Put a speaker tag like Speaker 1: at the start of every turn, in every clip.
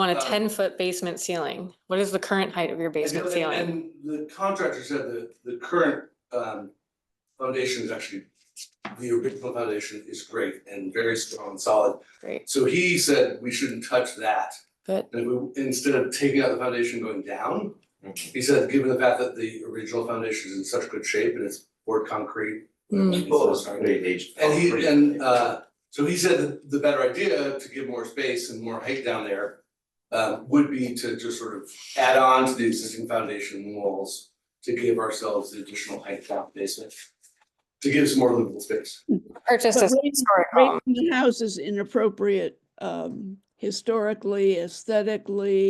Speaker 1: want a
Speaker 2: Uh,
Speaker 1: ten-foot basement ceiling. What is the current height of your
Speaker 2: And
Speaker 1: basement
Speaker 2: the-
Speaker 1: ceiling?
Speaker 2: And the contractor said that the current um foundation is actually, the original foundation is great and very strong and solid.
Speaker 1: Great,
Speaker 2: So he said we shouldn't touch that.
Speaker 1: good.
Speaker 2: And we, instead of taking out the foundation going down,
Speaker 3: Mhm.
Speaker 2: he said, given the fact that the original foundation is in such good shape and it's poured concrete.
Speaker 1: Mm.
Speaker 2: it's
Speaker 3: Well,
Speaker 2: all
Speaker 3: it's
Speaker 2: starting-
Speaker 3: very aged.
Speaker 2: And he,
Speaker 3: concrete.
Speaker 2: and uh, so he said that the better idea to give more space and more height down there uh, would be to just sort of add on to the existing foundation walls to give ourselves the additional height down the basement, to give some more livable space.
Speaker 1: Purchased
Speaker 4: But
Speaker 1: a
Speaker 4: raising-
Speaker 1: historic home.
Speaker 4: Raising the house is inappropriate um, historically, aesthetically.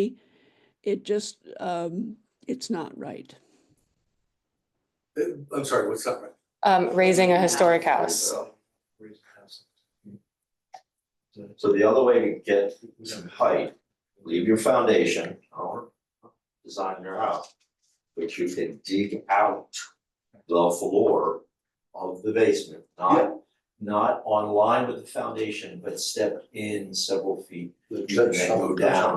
Speaker 4: It just, um, it's not right.
Speaker 2: Uh, I'm sorry, what's that? right?
Speaker 1: Um, raising a historic house.
Speaker 3: So the other way to get some height, leave your foundation or design your house. But you can dig out the floor of the basement, not, not on line with the foundation, but step in several feet.
Speaker 2: The
Speaker 3: You can then go down,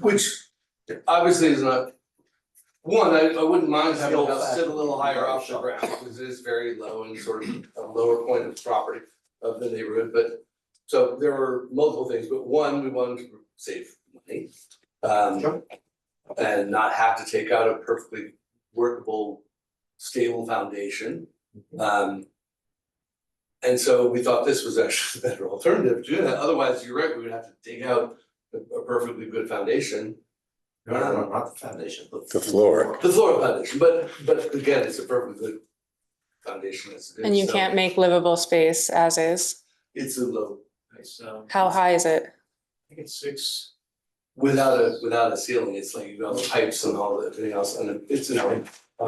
Speaker 2: Which obviously is not, one, I I wouldn't mind having
Speaker 3: Still
Speaker 2: a house sit a little higher off the
Speaker 3: shop.
Speaker 2: ground, because it is very low and sort of a lower point of property of the neighborhood, but. So there were multiple things, but one, we wanted to save money. Um,
Speaker 3: Sure.
Speaker 2: and not have to take out a perfectly workable, stable foundation.
Speaker 3: Mm-hmm.
Speaker 2: Um. And so we thought this was actually the better alternative to do that, otherwise, you're right, we would have to dig out a a perfectly good foundation.
Speaker 3: no, no, no, not the foundation, the
Speaker 5: The floor.
Speaker 2: The floor foundation, but but again, it's a perfectly good foundation as it is.
Speaker 1: And you
Speaker 2: so
Speaker 1: can't make livable space as is.
Speaker 2: It's a low,
Speaker 6: It's, um,
Speaker 1: How high is it?
Speaker 6: I think it's six.
Speaker 2: without a, without a ceiling, it's like you got the pipes and all that, everything else, and it's an. Uh,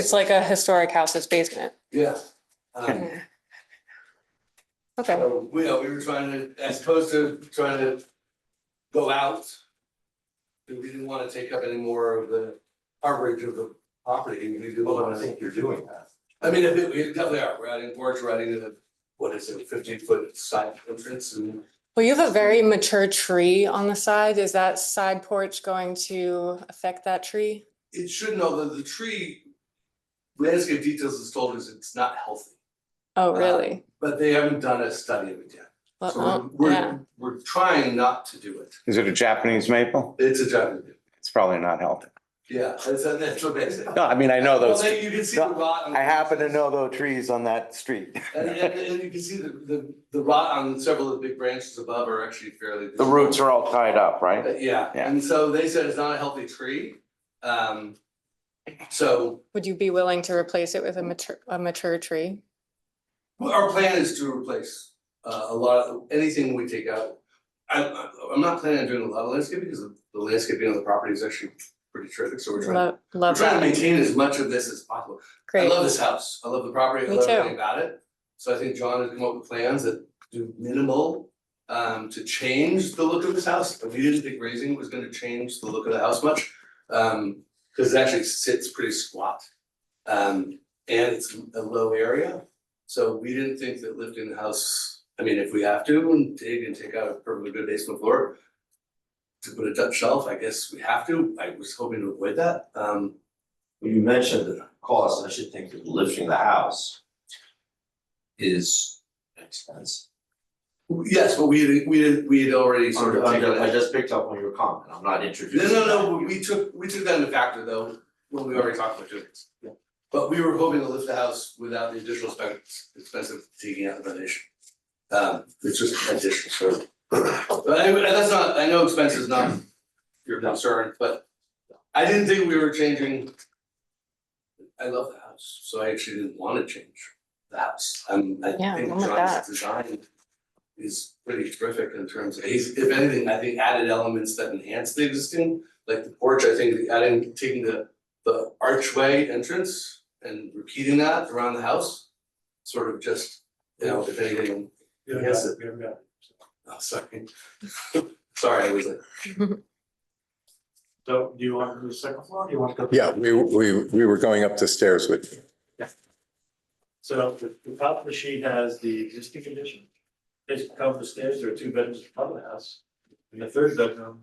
Speaker 1: It's like a historic house's basement.
Speaker 2: Yeah. Um,
Speaker 1: Yeah. Okay,
Speaker 2: so, you know, we were trying to, as opposed to trying to go out. We didn't wanna take up any more of the coverage of the property, we didn't
Speaker 3: Well, I
Speaker 2: wanna.
Speaker 3: think you're doing that.
Speaker 2: I mean, if it- we definitely are, we're adding porch, we're adding a, what is it, fifteen foot side entrance and.
Speaker 1: well, you have a very mature tree on the side. Is that side porch going to affect that tree?
Speaker 2: It should know that the tree landscape details is told us it's not healthy,
Speaker 1: Oh,
Speaker 2: Uh,
Speaker 1: really?
Speaker 2: but they haven't done a study of it yet.
Speaker 1: Well,
Speaker 2: So
Speaker 1: oh, yeah.
Speaker 2: we're, we're trying not to do it.
Speaker 5: Is it a Japanese maple?
Speaker 2: It's a job,
Speaker 5: It's probably not healthy.
Speaker 2: yeah, that's, that's what they say.
Speaker 5: No, I mean, I know
Speaker 2: Well,
Speaker 5: those,
Speaker 2: then you can see the rot. on-
Speaker 5: I happen to know those trees on that street.
Speaker 2: And, and, and you can see the, the, the rot on several of the big branches above are actually fairly.
Speaker 5: The roots are all tied up, right?
Speaker 2: Uh, Yeah,
Speaker 5: Yeah.
Speaker 2: and so they said it's not a healthy tree. Um, so
Speaker 1: Would you be willing to replace it with a mature, a mature tree?
Speaker 2: our plan is to replace uh a lot of, anything we take out. I I- I'm not planning on doing a lot of landscaping because the the landscaping on the property is actually pretty terrific, so we're trying.
Speaker 1: Love,
Speaker 2: We're
Speaker 1: love
Speaker 2: trying to
Speaker 1: that.
Speaker 2: maintain as much of this as possible. I
Speaker 1: Great.
Speaker 2: love this house. I love the property. I
Speaker 1: Me
Speaker 2: love
Speaker 1: too.
Speaker 2: everything about it. So I think John has come up with plans that do minimal um to change the look of this house. But we didn't think raising was gonna change the look of the house much. Um, cause it actually sits pretty squat. Um, and it's a low area. So we didn't think that lifting the house, I mean, if we have to and dig and take out a perfectly good basement floor. To put a Dutch shelf, I guess we have to. I was hoping to avoid that. Um,
Speaker 3: When you mentioned the cost, I should think that lifting the house is expensive.
Speaker 2: Yes, but we had, we had, we had already sort of taken
Speaker 3: I
Speaker 2: that.
Speaker 3: just picked up on your comment, I'm not
Speaker 2: No,
Speaker 3: introducing.
Speaker 2: no,
Speaker 3: that.
Speaker 2: no, but we took, we took that into factor though, when we already talked about doing this. But we were hoping to lift the house without the additional spec, expense of taking out the foundation. Um, it's just additional, so. But anyway, that's not, I know expense is not your concern, but I didn't think we were changing. I love the house, so I actually didn't wanna change the house. Um, I
Speaker 1: Yeah,
Speaker 2: think
Speaker 1: I'm with that.
Speaker 2: John's design is pretty terrific in terms of, he's, if anything, I think added elements that enhance the existing, like the porch, I think adding, taking the the archway entrance and repeating that around the house, sort of just, you know, if anything,
Speaker 6: We haven't
Speaker 2: Yes.
Speaker 6: got it, we haven't got it.
Speaker 2: oh, sorry. Sorry, I was like,
Speaker 6: So do you want to do the second floor? or Do you want to go?
Speaker 5: Yeah, we, we, we were going up the stairs with you.
Speaker 6: So the, the top of the sheet has the existing condition. Basically, come up the stairs, there are two bedrooms in front of the house. And the third bedroom